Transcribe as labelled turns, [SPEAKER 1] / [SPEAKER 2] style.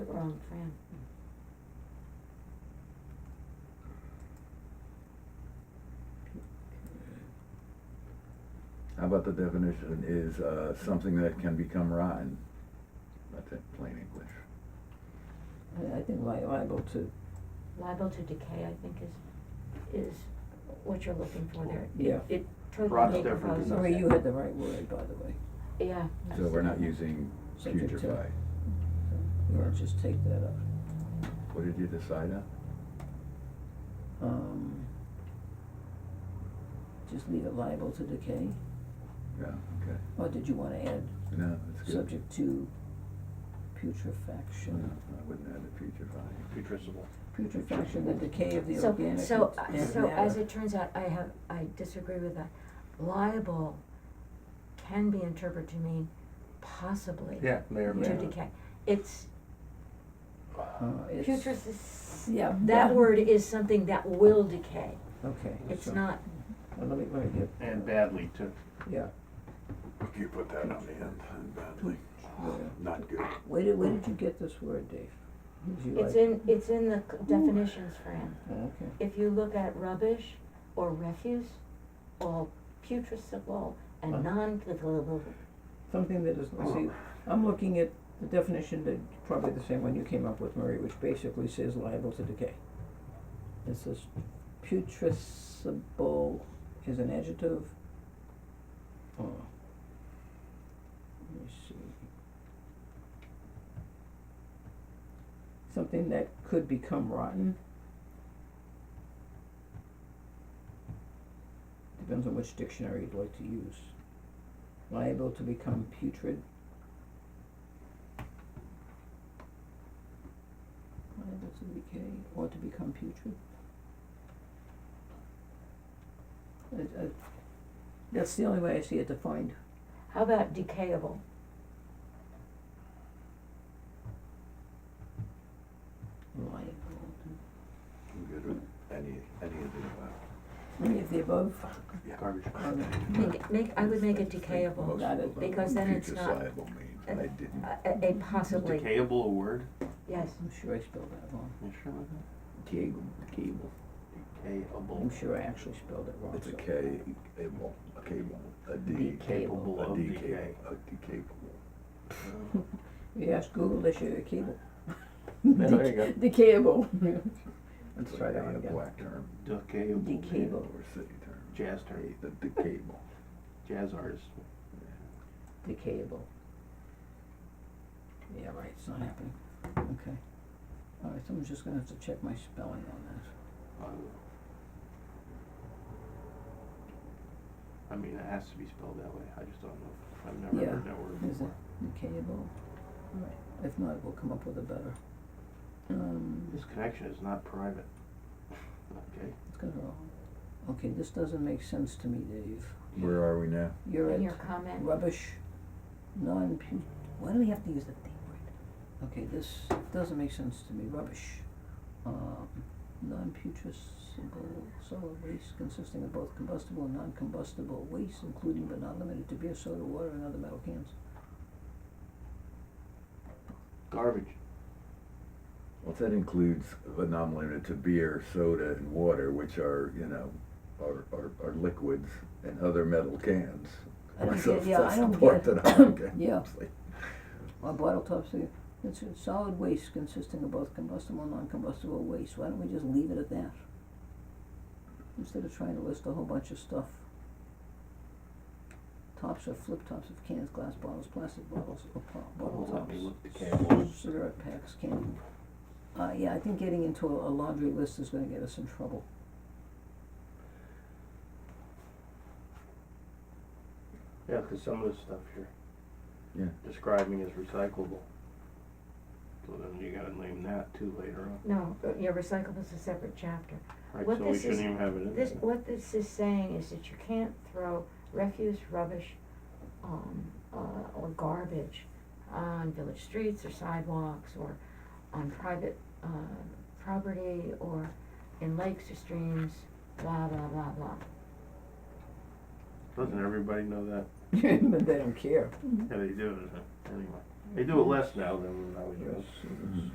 [SPEAKER 1] Wrong Fran.
[SPEAKER 2] How about the definition is uh, something that can become rotten? That's it, plain English.
[SPEAKER 3] I, I think li- liable to,
[SPEAKER 1] Liable to decay, I think is, is what you're looking for there. It-
[SPEAKER 3] Yeah.
[SPEAKER 1] It totally
[SPEAKER 4] Rot's
[SPEAKER 1] decomposes.
[SPEAKER 4] different than
[SPEAKER 3] Uh, sorry, you had the right word, by the way.
[SPEAKER 1] Yeah.
[SPEAKER 2] So we're not using
[SPEAKER 3] Subject to.
[SPEAKER 2] putrefy.
[SPEAKER 3] So You wanna just take that up.
[SPEAKER 2] What did you decide on?
[SPEAKER 3] Um, just leave it liable to decay,
[SPEAKER 2] Yeah, okay.
[SPEAKER 3] or did you wanna add
[SPEAKER 2] No, that's good.
[SPEAKER 3] subject to
[SPEAKER 2] No,
[SPEAKER 3] putrefaction?
[SPEAKER 2] I wouldn't add the putrefy.
[SPEAKER 4] putrescible.
[SPEAKER 3] Putrefaction, the decay of the
[SPEAKER 1] So-
[SPEAKER 3] organic matter.
[SPEAKER 1] So, uh, so as it turns out, I have, I disagree with that. Liable can be interpreted to mean possibly
[SPEAKER 4] Yeah, may or may
[SPEAKER 1] to
[SPEAKER 3] Yeah.
[SPEAKER 4] not.
[SPEAKER 1] decay. It's,
[SPEAKER 3] Uh, it's-
[SPEAKER 1] putrescence,
[SPEAKER 3] yeah.
[SPEAKER 1] that word is something that will decay.
[SPEAKER 3] Okay.
[SPEAKER 1] It's
[SPEAKER 3] so-
[SPEAKER 1] not,
[SPEAKER 3] Well, let me, let me get.
[SPEAKER 4] And badly too.
[SPEAKER 3] Yeah,
[SPEAKER 2] You put that on the end, badly,
[SPEAKER 3] yeah.
[SPEAKER 2] not good.
[SPEAKER 3] Where did, where did you get this word, Dave? Did you
[SPEAKER 1] it's
[SPEAKER 3] like-
[SPEAKER 1] in, it's in the c- definitions, Fran.
[SPEAKER 3] Oh, Okay.
[SPEAKER 1] If you look at rubbish or refuse, all putrescible
[SPEAKER 3] Huh?
[SPEAKER 1] and non-potable,
[SPEAKER 3] Something that is, see, I'm looking at the definition that, probably the same one you came up with, Murray, which basically says liable to decay. It says putrescible is an adjective. Uh, Let me see. Something that could become rotten. Depends on which dictionary you'd like to use. Liable to become putrid. Liable to decay or to become putrid. It, it, that's the only way I see it defined.
[SPEAKER 1] how about decayable?
[SPEAKER 3] Liable.
[SPEAKER 2] I'm good with any, any of the above.
[SPEAKER 3] Any of the above,
[SPEAKER 2] Yeah.
[SPEAKER 4] Garbage.
[SPEAKER 3] um,
[SPEAKER 1] Make, it- make, I would make it
[SPEAKER 2] Most
[SPEAKER 1] decayable,
[SPEAKER 3] Got it.
[SPEAKER 2] people don't
[SPEAKER 1] Because
[SPEAKER 2] know
[SPEAKER 1] then it's
[SPEAKER 2] future
[SPEAKER 1] not- uh,
[SPEAKER 2] liable means, I didn't.
[SPEAKER 1] a, a- a possibly,
[SPEAKER 4] Decayable a word?
[SPEAKER 1] yes.
[SPEAKER 3] I'm sure I spelled that wrong.
[SPEAKER 4] You sure about
[SPEAKER 2] Cable, cable.
[SPEAKER 4] that? Decayable.
[SPEAKER 3] I'm sure I actually spelled it wrong.
[SPEAKER 2] It's a
[SPEAKER 3] so-
[SPEAKER 2] K, cable, a cable, a D.
[SPEAKER 3] Decable.
[SPEAKER 2] A
[SPEAKER 4] Of
[SPEAKER 2] D
[SPEAKER 4] decay.
[SPEAKER 2] cable, a decapable.
[SPEAKER 4] Uh,
[SPEAKER 3] You ask Google, they show you a cable.
[SPEAKER 4] Yeah, there you go.
[SPEAKER 3] Decayable. Let's
[SPEAKER 2] It's
[SPEAKER 3] try that
[SPEAKER 2] a
[SPEAKER 3] one again.
[SPEAKER 2] Black term.
[SPEAKER 4] Decayable. man.
[SPEAKER 3] Decayable.
[SPEAKER 2] Or city term.
[SPEAKER 4] Jazz term.
[SPEAKER 2] The decable.
[SPEAKER 4] Jazz artist.
[SPEAKER 3] decayable. Yeah, right, it's not happening, okay. All right, someone's just gonna have to check my spelling on that.
[SPEAKER 4] Uh, I mean, it has to be spelled that way. I just don't know. I've never
[SPEAKER 3] Yeah.
[SPEAKER 4] heard that word
[SPEAKER 3] Is it
[SPEAKER 4] before.
[SPEAKER 3] decayable? All right, if not, we'll come up with a better. Um,
[SPEAKER 4] This connection is not private. Okay.
[SPEAKER 3] it's gonna wrong. Okay, this doesn't make sense to me, Dave.
[SPEAKER 2] Where are we now?
[SPEAKER 3] You're
[SPEAKER 1] In your
[SPEAKER 3] at
[SPEAKER 1] comment,
[SPEAKER 3] rubbish, non-pu- why do we have to use the thing word? Okay, this doesn't make sense to me, rubbish. Um, non-putrescible solid waste consisting of both combustible and non-combustible waste, including but not limited to beer, soda, water, and other metal cans.
[SPEAKER 4] Garbage.
[SPEAKER 2] Well, that includes but not limited to beer, soda, and water, which are, you know, are, are, are liquids and other metal cans.
[SPEAKER 3] I don't
[SPEAKER 2] So
[SPEAKER 3] get- yeah,
[SPEAKER 2] that's
[SPEAKER 3] I
[SPEAKER 2] the
[SPEAKER 3] don't
[SPEAKER 2] part
[SPEAKER 3] get-
[SPEAKER 2] that I don't get.
[SPEAKER 3] Yeah.
[SPEAKER 2] It's like,
[SPEAKER 3] Or bottle tops, uh, it's a solid waste consisting of both combustible and non-combustible waste, why don't we just leave it at that? Instead of trying to list a whole bunch of stuff. Tops are flip tops of cans, glass bottles, plastic bottles, or po- bottle
[SPEAKER 4] Let
[SPEAKER 3] tops,
[SPEAKER 4] me look decayable.
[SPEAKER 3] cigarette packs, candy. Uh, yeah, I think getting into a a laundry list is gonna get us in trouble.
[SPEAKER 4] Yeah, 'cause some of the stuff you're
[SPEAKER 2] Yeah.
[SPEAKER 4] describing is recyclable. So then you gotta name that too later on.
[SPEAKER 1] no, uh, your recyclable is a separate chapter.
[SPEAKER 4] Right,
[SPEAKER 1] What
[SPEAKER 4] so we
[SPEAKER 1] this
[SPEAKER 4] shouldn't
[SPEAKER 1] is-
[SPEAKER 4] even have it in there.
[SPEAKER 1] This, what this is saying is that you can't throw refuse, rubbish, um, uh, or garbage on village streets or sidewalks or on private, uh, property or in lakes or streams, blah, blah, blah, blah.
[SPEAKER 4] Doesn't everybody know that?
[SPEAKER 3] But they don't care.
[SPEAKER 1] Mm-hmm.
[SPEAKER 4] Yeah, they do, it, huh? anyway. They do it less now than when I was young.
[SPEAKER 3] Yes, it is.